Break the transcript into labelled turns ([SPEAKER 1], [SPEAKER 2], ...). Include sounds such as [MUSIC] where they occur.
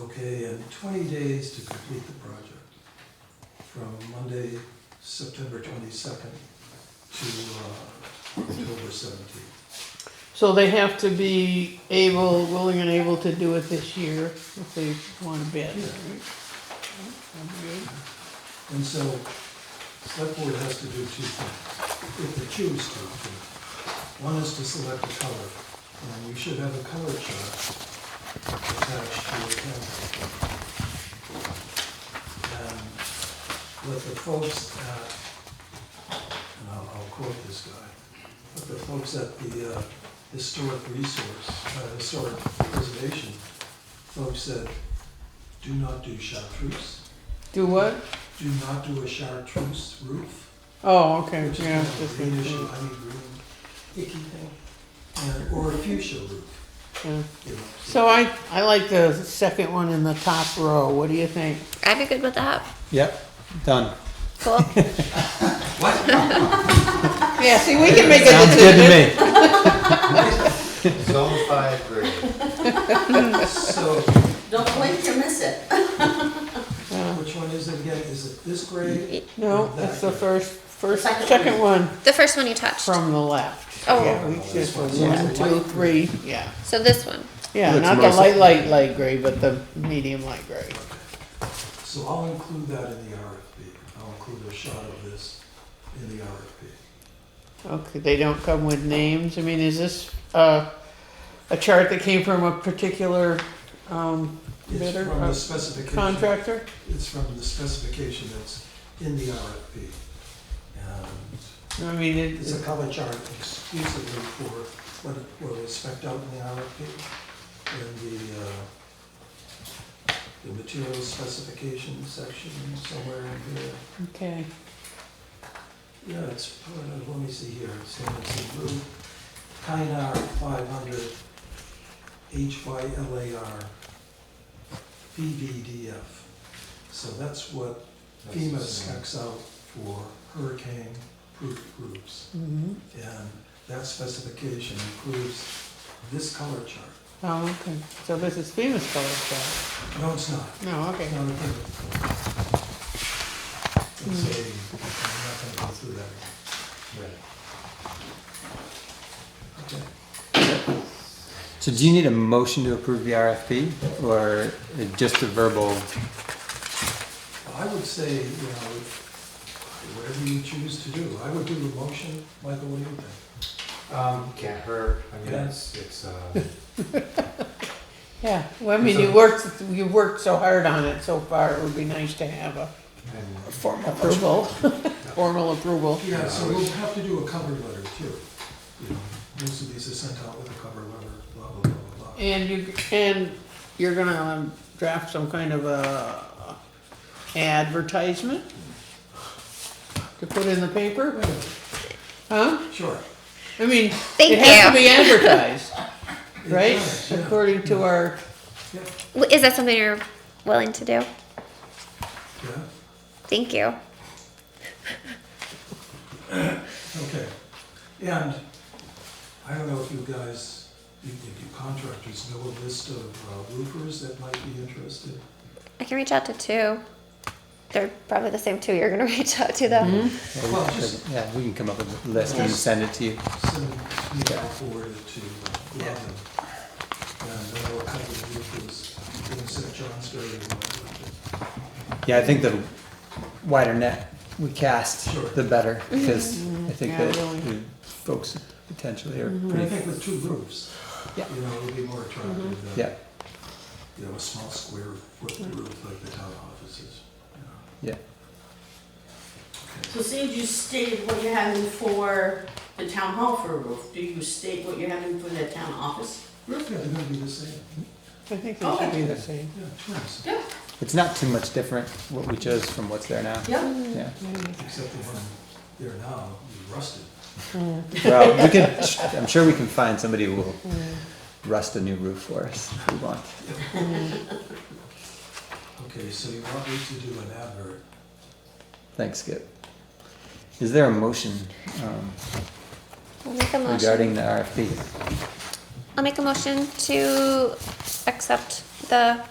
[SPEAKER 1] okay, and twenty days to complete the project. From Monday, September twenty-second to uh, October seventeenth.
[SPEAKER 2] So they have to be able, willing and able to do it this year if they want to bid. right?
[SPEAKER 1] Yeah.
[SPEAKER 2] Sounds good.
[SPEAKER 1] And so, select board has to do two things, if they choose to. do. One is to select a color, and you should have a color chart attached to your calendar. And what the folks at, and I'll, I'll quote this guy, but the folks at the uh, Historic Resource, uh, Historic Preservation, folks said, do not do chartreuse.
[SPEAKER 2] Do what?
[SPEAKER 1] Do not do a chartreuse roof,
[SPEAKER 2] Oh, okay,
[SPEAKER 1] which is
[SPEAKER 2] yeah.
[SPEAKER 1] kind of a
[SPEAKER 2] just
[SPEAKER 1] greenish,
[SPEAKER 2] a-
[SPEAKER 1] honey green, icky thing, and, or a fuchsia roof.
[SPEAKER 2] yeah.
[SPEAKER 1] you know.
[SPEAKER 2] So I, I like the second one in the top row. What do you think?
[SPEAKER 3] I'd be good with that.
[SPEAKER 4] Yep, done.
[SPEAKER 3] Cool.
[SPEAKER 2] Yeah, see, we can make a
[SPEAKER 4] Sounds good
[SPEAKER 2] decision.
[SPEAKER 4] to me.
[SPEAKER 5] Zone five grade.
[SPEAKER 1] So,
[SPEAKER 6] Don't blink to miss it.
[SPEAKER 1] which one is it again, is it this grade?
[SPEAKER 2] No, that's the first, first,
[SPEAKER 6] Second
[SPEAKER 2] second one
[SPEAKER 3] The first one you touched.
[SPEAKER 2] from the left.
[SPEAKER 3] Oh.
[SPEAKER 2] Yeah, we just,
[SPEAKER 1] This one's
[SPEAKER 2] one,
[SPEAKER 1] light
[SPEAKER 2] two,
[SPEAKER 1] green.
[SPEAKER 2] three, yeah.
[SPEAKER 3] So this one.
[SPEAKER 2] Yeah,
[SPEAKER 4] Looks
[SPEAKER 2] not the
[SPEAKER 4] nice.
[SPEAKER 2] light, light, light gray, but the medium light gray.
[SPEAKER 1] So I'll include that in the RFP, I'll include a shot of this in the RFP.
[SPEAKER 2] Okay, they don't come with names. I mean, is this uh, a chart that came from a particular um,
[SPEAKER 1] It's
[SPEAKER 2] Better,
[SPEAKER 1] from
[SPEAKER 2] uh,
[SPEAKER 1] the specification,
[SPEAKER 2] contractor?
[SPEAKER 1] it's from the specification that's in the RFP. And
[SPEAKER 2] I mean, it,
[SPEAKER 1] It's a color chart exclusively for what, what was spec'd out in the RFP and the, uh, the material specification section somewhere in here.
[SPEAKER 2] okay.
[SPEAKER 1] Yeah, it's, part of- let me see here, it's in it's in blue. Kynar five hundred, HYLAR, BVDF. So that's what FEMA specs out for hurricane-proof roofs.
[SPEAKER 2] Mm-hmm.
[SPEAKER 1] And that specification includes this color chart.
[SPEAKER 2] Oh, okay. So this is famous color chart.
[SPEAKER 1] No, it's not.
[SPEAKER 2] No, okay.
[SPEAKER 1] It's not a paper color. It's a, I'm not gonna go through that. Okay.
[SPEAKER 4] So do you need a motion to approve the RFP or just a verbal?
[SPEAKER 1] Well, I would say, you know, whatever you choose to do, I would do the motion. Michael, what do you think?
[SPEAKER 5] Um, can't hurt, I mean,
[SPEAKER 1] Yeah.
[SPEAKER 5] it's, it's, uh,
[SPEAKER 2] Yeah. Well, I mean, you worked you worked so hard on it so far. It would be nice to have a
[SPEAKER 5] and
[SPEAKER 2] formal approval, [LAUGHS] formal approval.
[SPEAKER 1] Yeah, so we'll have to do a cover letter too. You know, most of these are sent out with a cover letter, blah, blah, blah, blah, blah.
[SPEAKER 2] And you, and you're gonna um, draft some kind of a advertisement to put in the paper,
[SPEAKER 1] Wait a minute.
[SPEAKER 2] huh?
[SPEAKER 1] Sure.
[SPEAKER 2] I mean,
[SPEAKER 3] Thank
[SPEAKER 2] it has to
[SPEAKER 3] you.
[SPEAKER 2] be advertised,
[SPEAKER 1] It
[SPEAKER 2] right?
[SPEAKER 1] does, yeah.
[SPEAKER 2] According to our,
[SPEAKER 1] Yeah,
[SPEAKER 3] W- Is that something you're willing to do?
[SPEAKER 1] yeah.
[SPEAKER 3] Thank you.
[SPEAKER 1] Okay, and I don't know if you guys, you if you contractors know a list of uh, roofers that might be interested?
[SPEAKER 3] I can reach out to two. They're probably the same two you're gonna [LAUGHS] reach out to though.
[SPEAKER 1] Well, just-
[SPEAKER 4] Yeah, we can come up with a list and
[SPEAKER 1] Just-
[SPEAKER 4] send it to you.
[SPEAKER 1] Send me out forward to uh, Robin. And I know a couple of roofers in St. John's very well.
[SPEAKER 4] Yeah, I think the wider net we cast,
[SPEAKER 1] Sure.
[SPEAKER 4] the better, because I think
[SPEAKER 2] Mm-hmm. Yeah,
[SPEAKER 4] that
[SPEAKER 2] really. Mm-hmm.
[SPEAKER 4] the folks potentially are
[SPEAKER 1] But I
[SPEAKER 4] pretty,
[SPEAKER 1] think with two roofs, you
[SPEAKER 4] Yeah. Mm-hmm.
[SPEAKER 1] know, it'll be more attractive
[SPEAKER 4] yeah, Mm-hmm.
[SPEAKER 1] than, you know, a small square foot roof like the town offices. you know.
[SPEAKER 4] yeah.
[SPEAKER 6] So say you stated what you're having for the town hall for a roof, do you state what you're having for the town office?
[SPEAKER 1] Yeah, they're gonna be the same,
[SPEAKER 2] I think they should be the same.
[SPEAKER 1] yeah, twins,
[SPEAKER 6] Yeah.
[SPEAKER 4] It's not too much different what we chose from what's there now.
[SPEAKER 6] Yep.
[SPEAKER 2] Mm.
[SPEAKER 4] Yeah.
[SPEAKER 1] except the one there now is rusted.
[SPEAKER 4] Well, we can, I'm sure we can find somebody who will
[SPEAKER 2] Mm.
[SPEAKER 4] rust a new roof for us if we want.
[SPEAKER 1] Okay, so you want me to do an advert?
[SPEAKER 4] Thanks, Skip. Is there a motion um,
[SPEAKER 3] I'll make a motion.
[SPEAKER 4] regarding the RFP?
[SPEAKER 3] I'll make a motion to accept the